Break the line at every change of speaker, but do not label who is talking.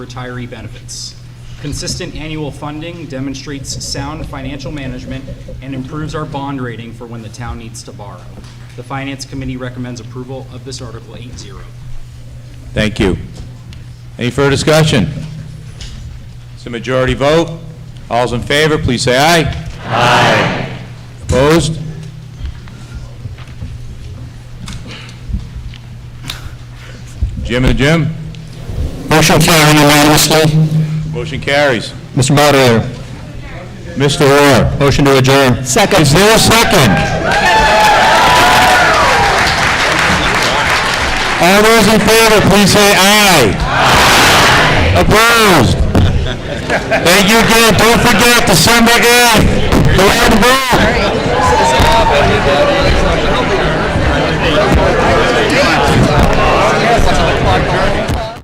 retiree benefits. Consistent annual funding demonstrates sound financial management and improves our bond rating for when the town needs to borrow. The Finance Committee recommends approval of this Article 8-0.
Thank you. Any further discussion? It's a majority vote. All's in favor, please say aye. Aye. Opposed? Jim and Jim?
Motion carried unanimously.
Motion carries.
Mr. Moderator.
Mr. Orr?
Motion to adjourn. Second. Is there a second?
All those in favor, please say aye. Opposed? Thank you again. Don't forget December 8th, the round ball.
This is up, everybody.